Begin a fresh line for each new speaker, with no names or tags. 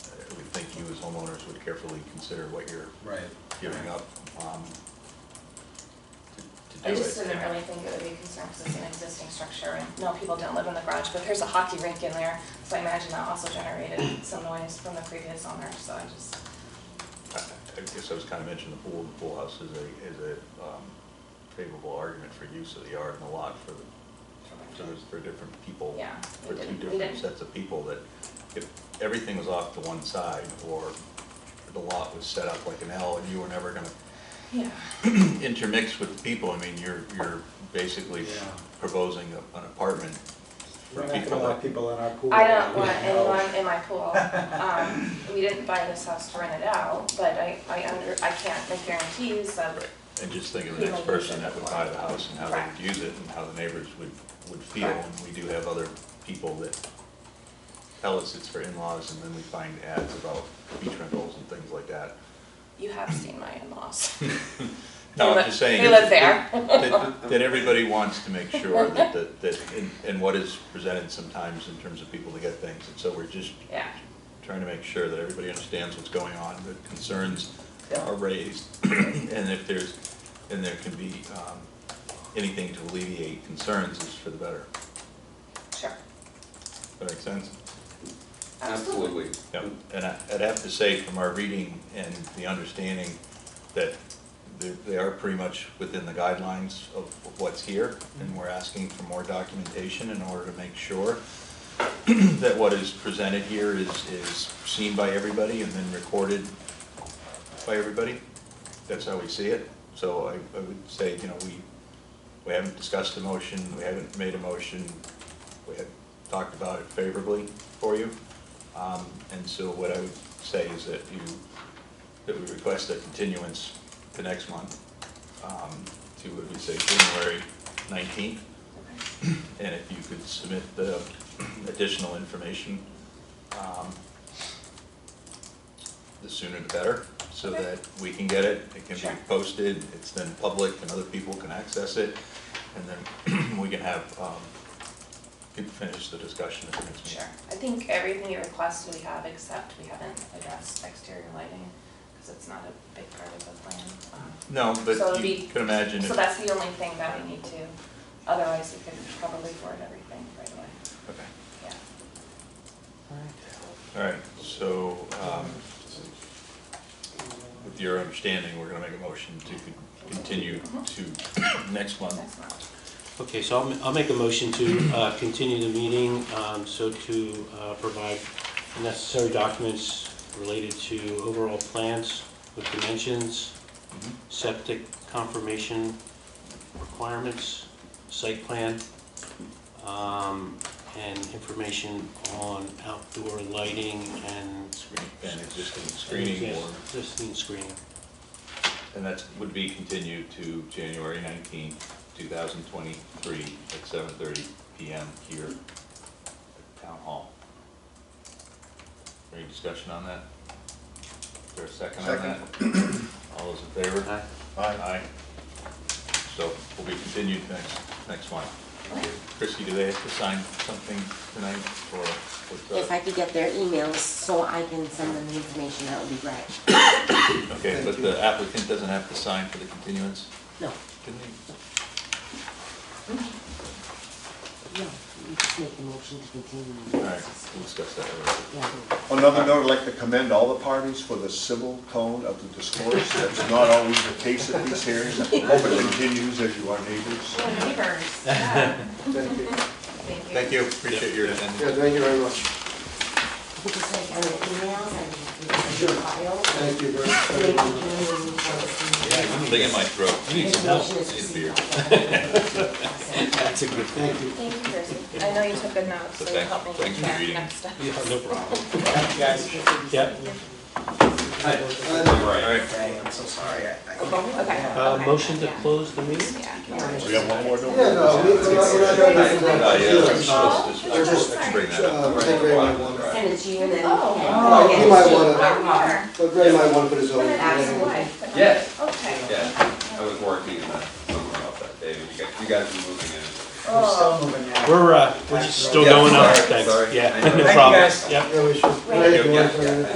Uh, homeowners would carefully consider what you're
Right.
giving up, um, to- to
I
do
just
it.
didn't really think it would be concerned because it's an existing structure and no, people don't live in the garage, but there's a hockey rink in there. So I imagine that also generated some noise from the previous owner, so I just,
I I guess I was kind of mentioning the pool, the pool house is a, is a um, favorable argument for use of the yard and the lot for, the- so there's, for different people.
Yeah, we
For two
didn't- we
different
didn't-
sets of people that if everything was off to one side or the lot was set up like an L and you were never gonna
yeah.
intermix with the people, I mean, you're, you're basically
Yeah.
proposing a- an apartment
We're
for
not gonna
people
allow
that,
people in our pool.
I don't want
Yeah, no.
anyone in my pool. Um, we didn't buy this house to rent it out, but I, I under, I can't make guarantees of,
right, and just think of the
People
next
use
person
it
that would
before.
buy the house and how they
Correct.
would use it and how the neighbors would, would feel.
Correct.
And we do have other people that tell us it's for in-laws and then we find ads about beach rentals and things like that.
you have seen my in-laws.
No,
They
I'm
li-
just saying.
they live there.
That that everybody wants to make sure that, that, that and- and what is presented sometimes in terms of people to get things. And so we're just
Yeah,
trying to make sure that everybody understands what's going on, that concerns
Yeah.
are raised, and if there's, and there can be um, anything to alleviate concerns is for the better.
sure.
Does that make sense?
Absolutely.
Yeah, and I- I'd have to say from our reading and the understanding that they- they are pretty much within the guidelines of what's here, and we're asking for more documentation in order to make sure that what is presented here is, is seen by everybody and then recorded by everybody. That's how we see it. So I, I would say, you know, we, we haven't discussed a motion, we haven't made a motion, we have talked about it favorably for you. Um, And so what I would say is that you, that we request a continuance to next month, um, to, what we say, January 19th.
Okay.
And if you could submit the additional information, um, the sooner the better, so
Okay.
that we can get it, it can
Sure.
be posted, it's then public and other people can access it. And then we can have, um, can finish the discussion at the next meeting.
Sure, I think everything you requested we have, except we haven't addressed exterior lighting, because it's not a big part of the plan. Um,
No,
So
but
it'd
you
be-
can imagine if.
So that's the only thing that we need to, otherwise we could probably forward everything right away,
Okay.
yeah.
All right, so um, with your understanding, we're going to make a motion to con- continue
Mm-hmm.
to next month.
Next month,
Okay, so I'll, ma- I'll make a motion to uh, continue the meeting, um, so to uh, provide necessary documents related to overall plans with dimensions, septic confirmation requirements, site plan, um, and information on outdoor lighting and.
And existing screening board,
Existing screening.
and that would be continued to January 19th, 2023, at 7:30 PM here at Town Hall. Any discussion on that? Is there a second on that? All those in favor?
Aye.
Aye. So will be continued next, next one.
Okay.
Christie, do they have to sign something tonight uh, or what's
If I
that?
could get their emails so I can send them the information, that would be great.
Okay, but the applicant doesn't have to sign for the continuance,
No,
didn't he?
no, you just make the motion to continue.
All right, we'll discuss that later.
Yeah.
On another note, I'd like to commend all the parties for the civil tone of the discourse. That's not always the case at these hearings. I Hope it continues as you are neighbors.
Yeah, neighbors, yeah,
Thank you. Yeah,
thank you.
Thank you, appreciate your attendance.
thank you very much.
Because like on the emails, I can do the file.
Thank you very
Make
very
it
much.
really important.
I'm thinking my throat.
And the motion
Need
is to
a
see
beer.
that.
That's a good
Thank you.
Thank you, Jersey, I know you took good notes,
So
so you
thanks-
helped me
thanks for
prepare
reading.
next step.
Yeah, no problem.
Yeah.
Yep.
All right,
I'm so sorry. I- I-
Okay,
Uh, motion to close the meeting?
yeah.
We have one more door.
Yeah, no, we- we're not- we're not doing this.
Uh, yeah, let's-
Oh,
let's just- let's just bring that up.
Uh, Greg Ray might wanna,
Send it to you and then.
Oh.
Oh, you might wanna-
Sure.
but Ray might wanna put his own.
Absolutely.
Yeah.
Okay.
Yeah, I was working in that, somewhere off that day, and you guys, you guys were moving in.
We're still
Oh,
moving now.
We're, uh, we're just still
Yeah,
going up,
sorry,
thanks,
sorry.
yeah,
I know.
no
Thank you,
problem,
guys.
yep.
Yeah, we should.
Right.
Ray, you wanna
Yeah,
put
yeah.
it in?